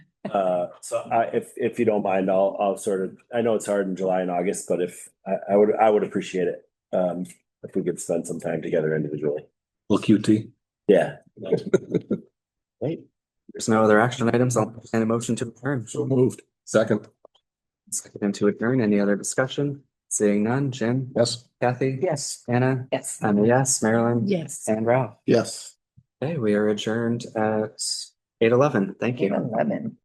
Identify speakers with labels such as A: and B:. A: Uh, so I, if, if you don't mind, I'll, I'll sort of, I know it's hard in July and August, but if, I, I would, I would appreciate it. Um, if we could spend some time together individually.
B: Little QT.
A: Yeah.
C: There's no other action items. I'll entertain a motion to adjourn.
B: So moved. Second.
C: Second to adjourn. Any other discussion? Seeing none. Jim?
B: Yes.
C: Kathy?
D: Yes.
C: Anna?
D: Yes.
C: I'm a yes. Marilyn?
D: Yes.
C: And Ralph?
B: Yes.
C: Okay, we are adjourned at eight eleven. Thank you.
D: Eleven.